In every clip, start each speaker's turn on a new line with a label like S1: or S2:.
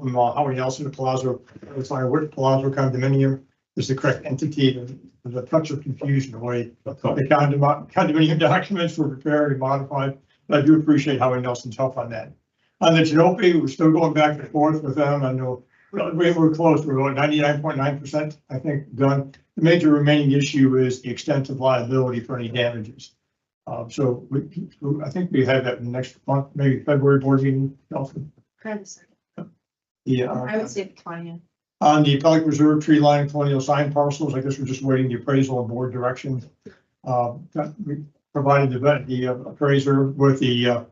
S1: from uh, Howard Nelson to Palazzo, uh, Firewood, Palazzo condominium is the correct entity. There's- There's a touch of confusion the way the condom- condominium documents were prepared and modified. But I do appreciate Howard Nelson's help on that. On the Genope, we're still going back and forth with them. I know well, we were close. We're about ninety-nine point nine percent, I think, done. The major remaining issue is the extent of liability for any damages. Uh, so we, I think we have that next month, maybe February board meeting, Nelson.
S2: Kind of second.
S1: Yeah.
S2: I would say the twentieth.
S1: On the Pelican Reserve Tree Line Colonial Sign Parcels, I guess we're just waiting the appraisal and board direction. Um, that we provided the vet- the uh, appraiser with the uh,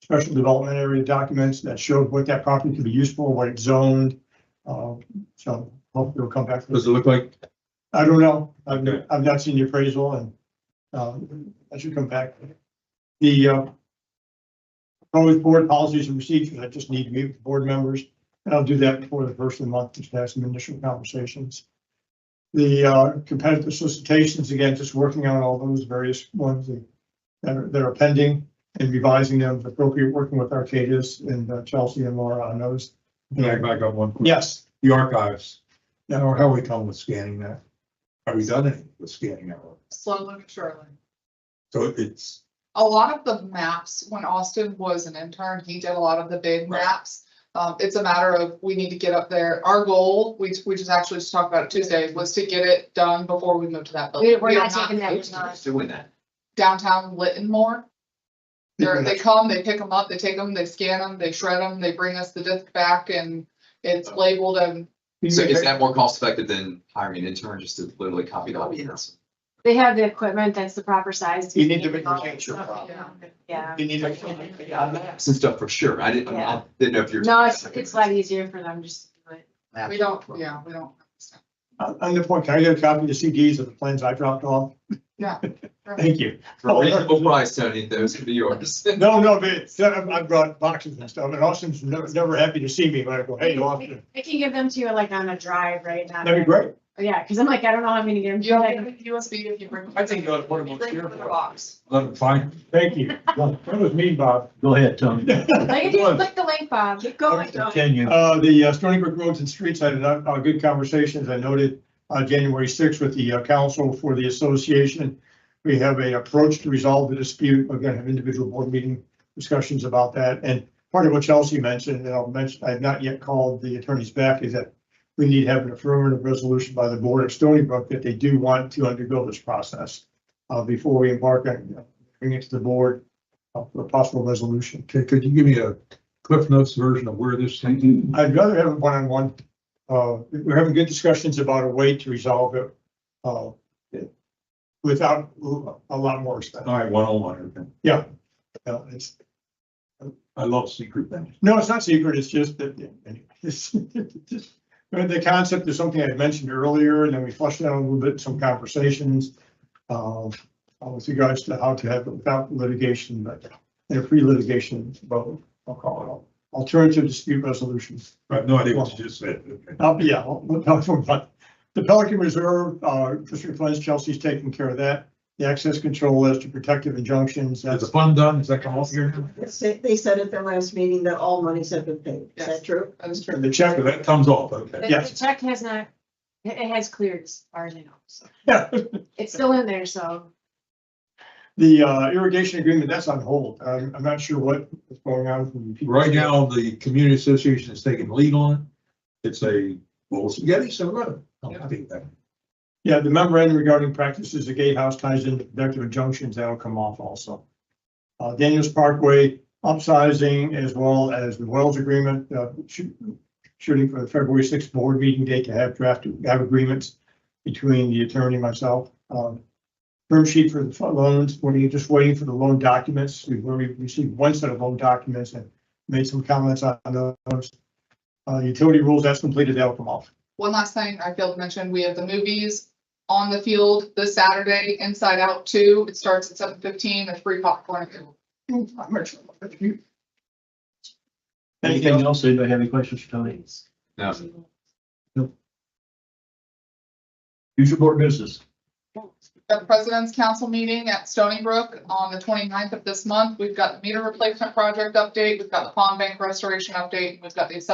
S1: special development area documents that showed what that property could be used for, what it's zoned. Uh, So hopefully we'll come back. to
S3: Does it look like,
S1: I don't know. I've,
S3: Okay.
S1: I've not seen the appraisal and, um, I should come back. The, uh, proposed board policies and procedures, I just need to meet with board members, and I'll do that before the first of the month, just to have some initial conversations. The, uh, competitive solicitations, again, just working on all those various ones that are, that are pending and revising them, if appropriate, working with Arcadis and uh, Chelsea and Laura on those.
S4: Can I back up one? quick?
S1: Yes,
S4: The archives. You know, how we come with scanning that? Have we done anything with scanning that? one?
S5: slowly but surely.
S4: So it's,
S5: A lot of the maps, when Austin was an intern, he did a lot of the big
S4: Right.
S5: maps. Um, it's a matter of, we need to get up there. Our goal, we, we just actually just talked about it Tuesday, was to get it done before we move to that building.
S2: We- we're
S5: We are
S2: not taking that,
S5: moving
S2: we're not.
S6: Doing that.
S5: Downtown Lytton more. They're,
S1: Yeah.
S5: they come, they pick them up, they take them, they scan them, they shred them, they bring us the disc back and it's labeled and
S6: So is that more cost effective than hiring an intern just to literally copy
S2: Oh,
S6: documents?
S2: They have the equipment that's the proper size.
S1: You need to make
S2: handle
S1: your
S2: it.
S1: picture
S2: Okay,
S5: problem.
S2: Yeah.
S1: you need to.
S6: Yeah, maps and stuff for sure. I didn't, I didn't know if you're.
S2: No, it's, it's a lot easier for them just to do it.
S5: we don't, yeah, we don't.
S1: On on the point, can I get a copy of the CDs of the plans I dropped off?
S5: Yeah.
S1: Thank you.
S6: For a reasonable price, Tony, those could be yours.
S1: No, no, but it's- I I brought boxes and stuff, and Austin's never, never happy to see me, but I go, hey, Austin,
S2: I can give them to you like on a drive, right? Not
S1: that'd be great.
S2: like- Yeah, because I'm like, I don't know, how I'm gonna get them.
S5: You don't have a USB if you bring.
S4: I think you ought to put 'em on
S5: Bring
S4: steer
S5: the
S4: for it.
S5: box.
S4: let them find.
S1: Thank you. That was mean, Bob.
S3: go ahead, Tony.
S2: All you do is click the link, Bob. Keep going.
S3: Continue.
S1: Uh, the uh, Stony Brook Roads and Streets, I had a, a good conversation, as I noted, uh, January sixth with the uh, council for the association. We have a approach to resolve the dispute. We're gonna have individual board meeting discussions about that. And part of what Chelsea mentioned, and I'll mention, I have not yet called the attorneys back, is that we need to have an affirmative resolution by the board of Stony Brook that they do want to undergo this process uh, before we embark on, bringing it to the board uh, for a possible resolution.
S4: Okay, could you give me a Cliff Notes version of where this thing?
S1: I'd rather have it one-on-one. Uh, we're having good discussions about a way to resolve it, uh, without a lot more stuff.
S4: All right, one on one.
S1: Uh, It's,
S4: I love secret things.
S1: no, it's not secret, it's just that, anyway, it's- but the concept is something I had mentioned earlier, and then we flushed out a little bit, some conversations, uh, with regards to how to have it without litigation, but in a pre-litigation, vote. I'll call it, alternative dispute resolution.
S4: I have no idea what you just said. Okay.
S1: Uh, yeah, we'll talk more about the Pelican Reserve, uh, District Funds, Chelsea's taking care of that. The access control list, the protective injunctions,
S4: Is the
S1: that's,
S4: fund done? Is that come off here? now?
S7: They said- They said at their last meeting that all monies have been paid.
S5: Yes.
S7: Is that true?
S5: That is true.
S1: the
S4: So
S1: check,
S4: that comes off, okay.
S2: The-
S1: Yes.
S2: The check has not, it it has cleared as far as I know. so.
S1: Yeah.
S2: It's still in there, so
S1: the uh, irrigation agreement, that's on hold. I'm, I'm not sure what is going on. from the-
S4: Right now, the community association is taking lead on it. It's a bowl of spaghetti, so look. I think that.
S1: Yeah, the memorandum regarding practices, the gatehouse ties into productive injunctions, that'll come off also. Uh, Daniels Parkway upsizing as well as the Wells Agreement, uh, shoot- shooting for the February sixth board meeting date to have draft, have agreements between the attorney and myself. Um, Term sheet for the fu- loans, we're just waiting for the loan documents. We've already received one set of loan documents and made some comments on those. Uh, utility rules, that's completed, that'll come off.
S5: One last thing I failed to mention, we have the movies on the field this Saturday, Inside Out Two. It starts at seven fifteen, there's free popcorn.
S1: Anything
S3: Anything else? Anybody have any questions for Tony?
S6: No.
S3: Future board business.
S5: The President's Council meeting at Stony Brook on the 29th of this month. We've got the meter replacement project update, we've got the pond bank restoration update, we've got the assessment